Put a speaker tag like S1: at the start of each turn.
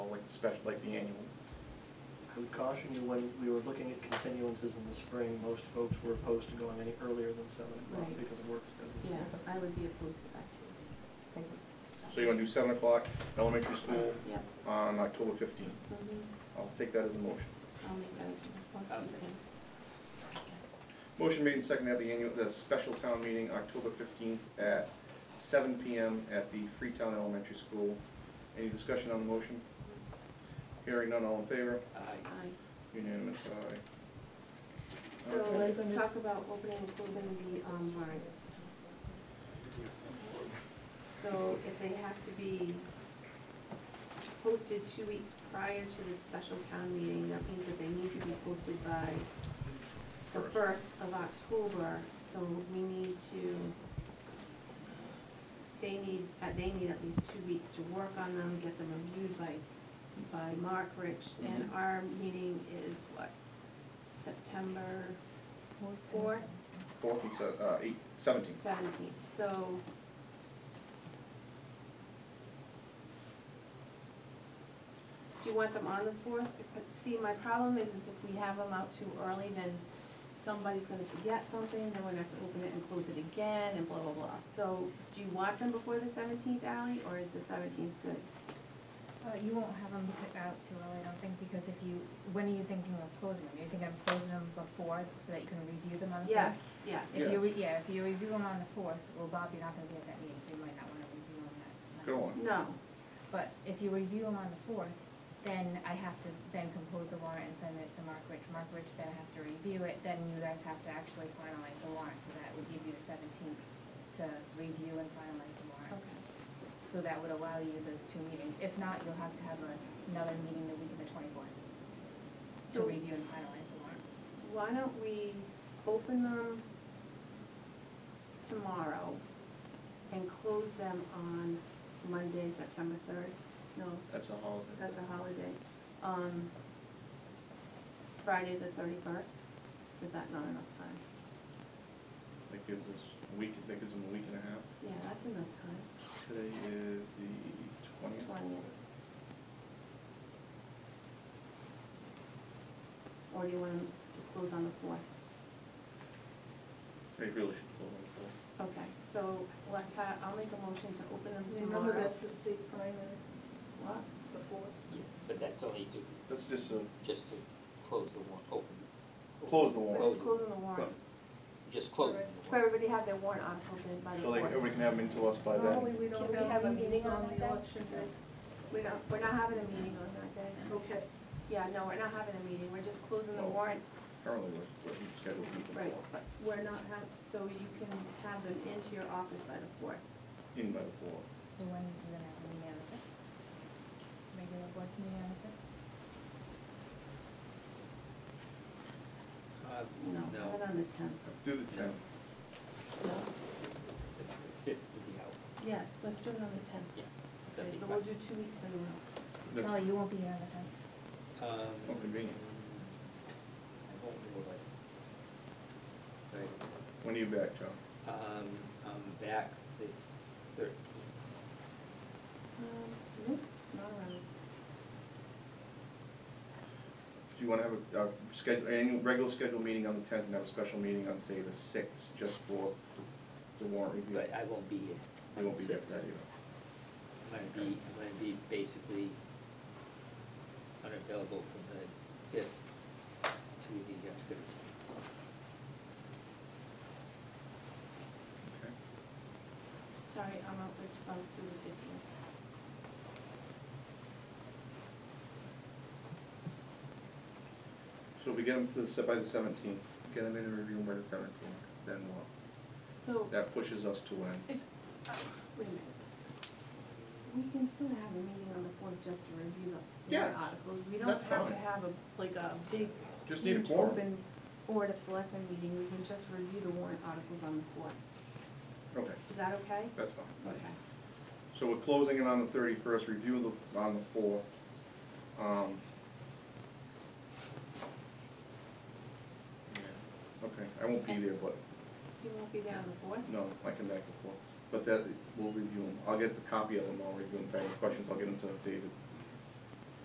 S1: special, like the annual.
S2: I would caution you, when we were looking at continuances in the spring, most folks were opposed to going any earlier than seven o'clock
S3: Right.
S2: because of work schedules.
S3: Yeah, I would be opposed to that too.
S1: So you want to do seven o'clock, elementary
S3: Uh,
S1: school
S3: Yep.
S1: on October fifteenth.
S3: mhm.
S1: I'll take that as a motion.
S3: I'll make that as
S2: I'll
S3: a
S2: second.
S1: Motion made and seconded at the annual, the special town meeting, October fifteenth at seven PM at the Freetown Elementary School. Any discussion on the motion? Hearing none, all in favor?
S3: Aye.
S1: Unanimous, aye.
S3: So
S1: Okay.
S3: let's talk about opening and closing the um, warrants. So if they have to be posted two weeks prior to the special town meeting, that means that they need to be posted by the first of October, so we need to, they need, uh, they need at least two weeks to work on them, get them reviewed by, by Mark Rich, and our meeting is what, September fourth,
S1: Fourth and se- uh, eight, seventeenth.
S3: seventeenth, so. Do you want them on the fourth? But see, my problem is, is if we have them out too early, then somebody's gonna forget something, then we're gonna have to open it and close it again, and blah, blah, blah. So, do you want them before the seventeenth, Ally, or is the seventeenth good?
S4: Uh, you won't have them put out too early, I don't think, because if you, when are you thinking of closing them? You're thinking of closing them before, so that you can review them on the
S3: Yes,
S4: fourth?
S3: yes.
S1: Yeah.
S4: If you, re- yeah, if you review them on the fourth, well, Bob, you're not gonna be at that meeting, so you might not wanna review them that night.
S1: Go on.
S3: No,
S4: But if you review them on the fourth, then I have to then compose the warrant and send it to Mark Rich. Mark Rich then has to review it, then you guys have to actually finalize the warrant, so that would give you the seventeenth to review and finalize the warrant.
S3: okay.
S4: So that would allow you those two meetings. If not, you'll have to have a- another meeting the week of the twenty-fourth to
S3: So-
S4: review and finalize the warrant.
S3: Why don't we open them tomorrow and close them on Monday, September third? No,
S1: That's a holiday.
S3: that's a holiday. Um, Friday the thirty-first, is that not enough time?
S1: That gives us a week, that gives them a week and a half.
S3: Yeah, that's enough time.
S1: Today is the twentieth.
S3: 20th. Or do you want 'em to close on the fourth?
S1: They really should close on the fourth.
S3: Okay, so let's have, I'll make a motion to open them tomorrow.
S5: Remember, that's the state primary,
S3: What?
S5: the fourth.
S6: But that's only to,
S1: That's just a,
S6: just to close the warrant, open,
S1: close the
S3: We're
S1: warrant,
S3: just closing the warrant.
S6: just close the
S3: So
S6: warrant.
S3: everybody have their warrant articles in by the
S1: so they,
S3: fourth.
S1: everybody can have them into us by
S5: Normally,
S1: then.
S5: we
S3: Can
S5: don't
S3: we have a
S5: have
S3: meeting
S5: meetings
S3: on
S5: on
S3: that
S5: the
S3: day?
S5: election day.
S3: We're not, we're not having a meeting on that day.
S5: Okay,
S3: Yeah, no, we're not having a meeting, we're just closing the
S1: No.
S3: warrant,
S1: Currently, we're, we're scheduled to meet the
S3: Oh, right,
S1: fourth,
S3: but we're not have, so you can have them into your office by the fourth.
S1: in by the fourth.
S4: So when you gonna have a meeting on the fifth? Regular board meeting on the fifth?
S7: Uh,
S3: No,
S7: No,
S3: not on the tenth.
S1: Do the tenth.
S3: No.
S6: The fifth would be out.
S3: Yeah, let's do it on the tenth.
S6: Yeah. That'd
S3: Okay,
S6: be
S3: so we'll
S6: fine.
S3: do two weeks in a row.
S1: That's-
S4: Kelly, you won't be here on the fifth.
S7: um,
S1: Oh, convenient.
S7: I won't be able to- Right.
S1: When are you back, John?
S7: Um, I'm back the thirteenth.
S3: Um, nope, not around.
S1: Do you wanna have a, a schedule, annual, regular scheduled meeting on the tenth and have a special meeting on, say, the sixth, just for the warrant review?
S7: But I won't be here.
S1: You won't be there for that
S7: Sixth.
S1: either.
S7: I'm gonna be, I'm gonna be basically unavailable from the fifth to the uh, thirteenth.
S1: Okay.
S3: Sorry, I'm out the twelfth through the fifteenth.
S1: So if we get them to the, se- by the seventeenth, get them in and review them by the seventeenth, then what?
S3: So,
S1: That pushes us to when?
S3: wait a minute. We can still have a meeting on the fourth just to review the
S1: Yeah,
S3: warrant articles. We don't
S1: that's
S3: have to
S1: fine.
S3: have a, like a big
S1: Just need a
S3: huge
S1: quorum.
S3: Open Board of Selectmen meeting, we can just review the warrant articles on the fourth.
S1: Okay,
S3: Is that okay?
S1: that's fine.
S3: Okay.
S1: So we're closing it on the thirty-first, review the, on the fourth. Um. yeah, Okay, I won't be there, but,
S3: You won't be there on the fourth?
S1: no, I come back the fourth, but that, we'll review them, I'll get the copy of them, I'll review them, if I have any questions, I'll get them to David.